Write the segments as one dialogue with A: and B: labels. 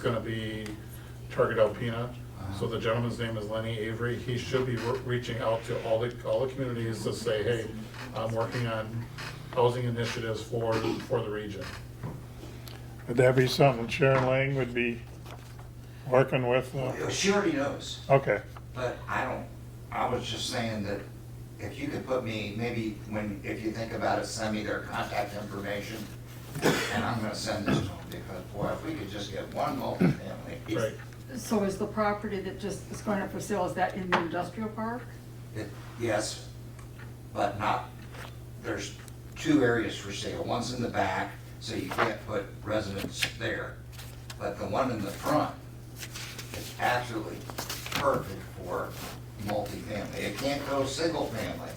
A: gonna be Target Alpena. So the gentleman's name is Lenny Avery. He should be re- reaching out to all the, all the communities to say, hey, I'm working on housing initiatives for, for the region.
B: Would that be something Sharon Lang would be working with? uh,
C: Well, She already knows,
B: Okay,
C: but I don't, I was just saying that if you could put me, maybe when, if you think about it, send me their contact information, and I'm gonna send this to them, because boy, if we could just get one multifamily.
A: Right.
D: So is the property that just is going up for sale, is that in the industrial park?
C: It- Yes, but not, there's two areas for sale, one's in the back, so you can't put residents there, but the one in the front is absolutely perfect for multifamily, it can't go single family.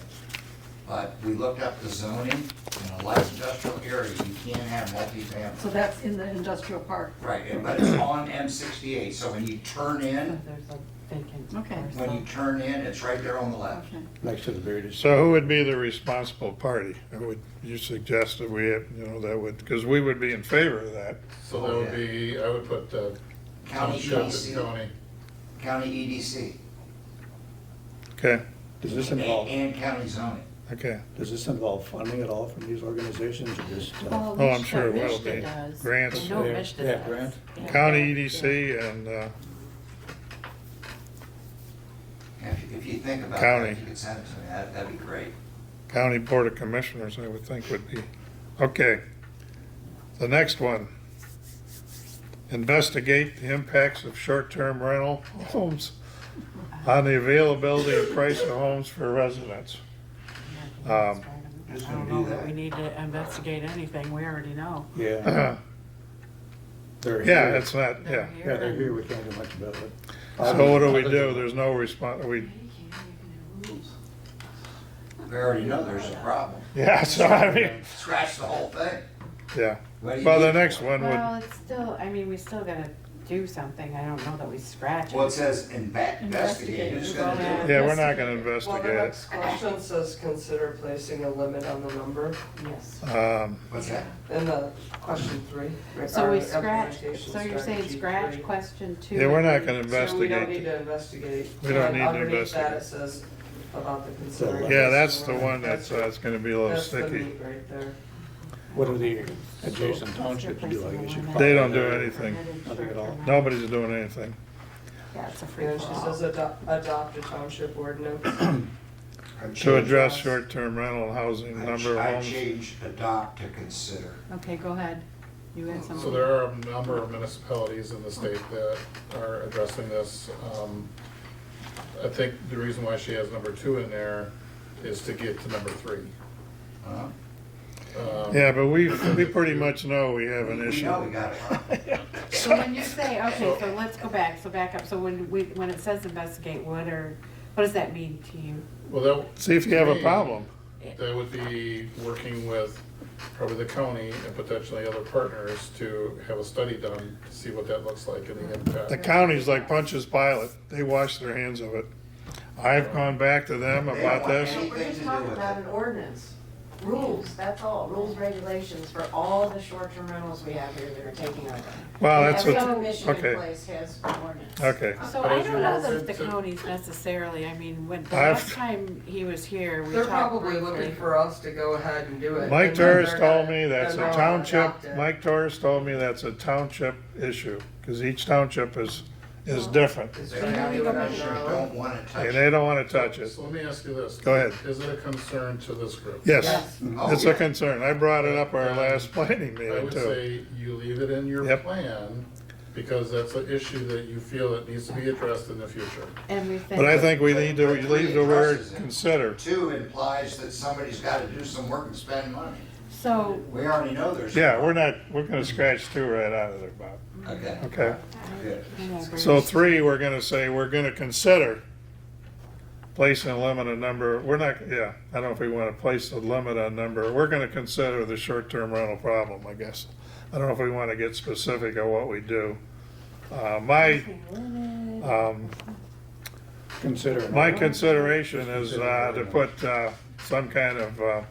C: But we looked up the zoning, in a light industrial area, you can't have
D: So
C: multifamily.
D: that's in the industrial park?
C: Right, and- but it's on M sixty-eight, so when you turn in,
E: There's a vacant.
D: Okay.
C: when you turn in, it's right there on the left.
D: Okay.
F: next to the Veritas.
B: so who would be the responsible party? Who Would you suggest that we, have- you know, that would, because we would be in favor of that.
A: So that would be, I would put uh,
C: County
A: township and
C: EDC.
A: county.
C: County E EDC.
B: Okay,
F: Does this
C: And-
F: involve,
C: And county zoning.
B: okay.
F: does this involve funding at all from these organizations or just? uh,
B: Oh, I'm sure it will be. Grants,
E: No,
F: Yeah,
E: Mishta
F: yeah,
E: does.
F: grant.
E: Yeah.
B: county E EDC and, uh,
C: If, if you think about
B: County.
C: that, if you could send it to me, that, that'd be great.
B: County Board of Commissioners, I would think would be. Okay. The next one. Investigate the impacts of short-term rental homes on the availability and price of homes for residents. Um,
E: I don't know that we need to investigate anything, we already know.
F: Yeah,
B: Yeah,
F: they're here.
B: it's not, yeah.
F: Yeah, they're here, we can't do much about it.
B: So what do we do? There's no response, we,
C: We already know there's a problem.
B: yeah, so I mean,
C: Scratch the whole thing.
B: yeah.
C: What do you
B: Well, the
C: need?
B: next one
E: Well,
B: would,
E: it's still, I mean, we still gotta do something, I don't know that we scratch
C: Well, it
E: it.
C: says inve- investigate,
D: Investigate.
C: who's gonna do it?
B: yeah, we're not gonna
G: Well,
B: investigate
G: the
B: it.
G: next question says consider placing a limit on the number
E: Yes.
B: Um,
C: What's that?
G: in the question three.
E: So we
G: regarding
E: scratch,
G: implementation
E: so you're saying
G: strategy
E: scratch
G: three.
E: question two?
B: Yeah, we're not
E: and
B: gonna
E: three.
G: So we don't
B: investigate.
G: need to investigate.
B: We don't
G: And
B: need to
G: Underneath that,
B: investigate.
G: it says about the consideration.
B: Yeah, that's the one that's, uh, that's gonna be a little
G: That's the
B: sticky.
G: meat right there.
F: What do the adjacent townships do, I guess you?
B: They don't do anything.
F: Nothing at all.
B: Nobody's doing anything.
E: Yeah, it's a free
G: And then she
E: for all.
G: says adopt, adopt a township ordinance.
B: To address short-term rental housing, number of
C: I
B: homes.
C: changed adopt to consider.
E: Okay, go ahead, you had something.
A: So there are a number of municipalities in the state that are addressing this. Um, I think the reason why she has number two in there is to get to number three.
C: huh?
A: Um,
B: Yeah, but we, we pretty much know we have an
C: We
B: issue.
C: know we got it.
E: So when you say, okay, so let's go back, so back up, so when we, when it says investigate, what are, what does that mean to you?
A: Well, that.
B: See if you have
A: to
B: a
A: me,
B: problem.
A: That would be working with probably the county and potentially other partners to have a study done to see what that looks like in the
B: The
A: impact.
B: county's like Punch's Pilot. They wash their hands of it. I've gone back to them
C: They don't
B: about
C: want
B: this.
C: any-
H: We're just talking about an ordinance, rules, that's all, rules, regulations for all the short-term rentals we have here that are taking over.
B: Well, that's
H: Every
B: what,
H: commission in
B: okay.
H: place has ordinance.
B: okay.
E: So
A: But
E: I
A: as
E: don't
A: you're
E: know that
A: open
E: it's the
A: to-
E: counties necessarily, I mean, when, the
B: I've-
E: last time he was here, we
G: They're
E: talked
G: probably looking
E: briefly.
G: for us to go ahead and do it.
B: Mike
G: and then
B: Torres
G: they're
B: told
G: gonna-
B: me that's
G: then
B: a
G: they'll
B: township,
G: adopt it.
B: Mike Torres told me that's a township issue, because each township is, is different.
G: It's
C: The
G: gonna
C: county
G: do it on
C: commissioners
G: their own.
C: don't wanna touch
B: And
C: it.
B: they don't want to touch it.
A: So let me ask you this.
B: Go ahead.
A: Is it a concern to this group?
B: Yes,
C: Oh,
B: it's
C: yeah.
B: a concern. I brought it up our last planning
A: I
B: meeting
A: would
B: too.
A: say you leave it in your
B: Yep.
A: plan, because that's an issue that you feel that needs to be addressed in the future.
E: And we think.
B: But I think we need to leave the word consider.
C: Two implies that somebody's gotta do some work and spend money.
H: Oh.
E: So,
C: We already know there's. a
B: Yeah, we're
C: problem.
B: not, we're gonna scratch two right out of there, Bob.
C: Okay.
B: Okay.
C: Good.
E: whatever.
B: So three, we're gonna say, we're gonna consider placing a limit on number, we're not, yeah, I don't know if we wanna place a limit on number, we're gonna consider the short-term rental problem, I guess. I don't know if we wanna get specific on what we do. Uh, my, um,
F: Consider.
B: My consideration is uh, to put uh, some kind of uh,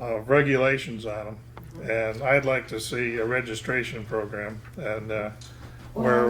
B: uh, regulations on them. And I'd like to see a registration program and uh, where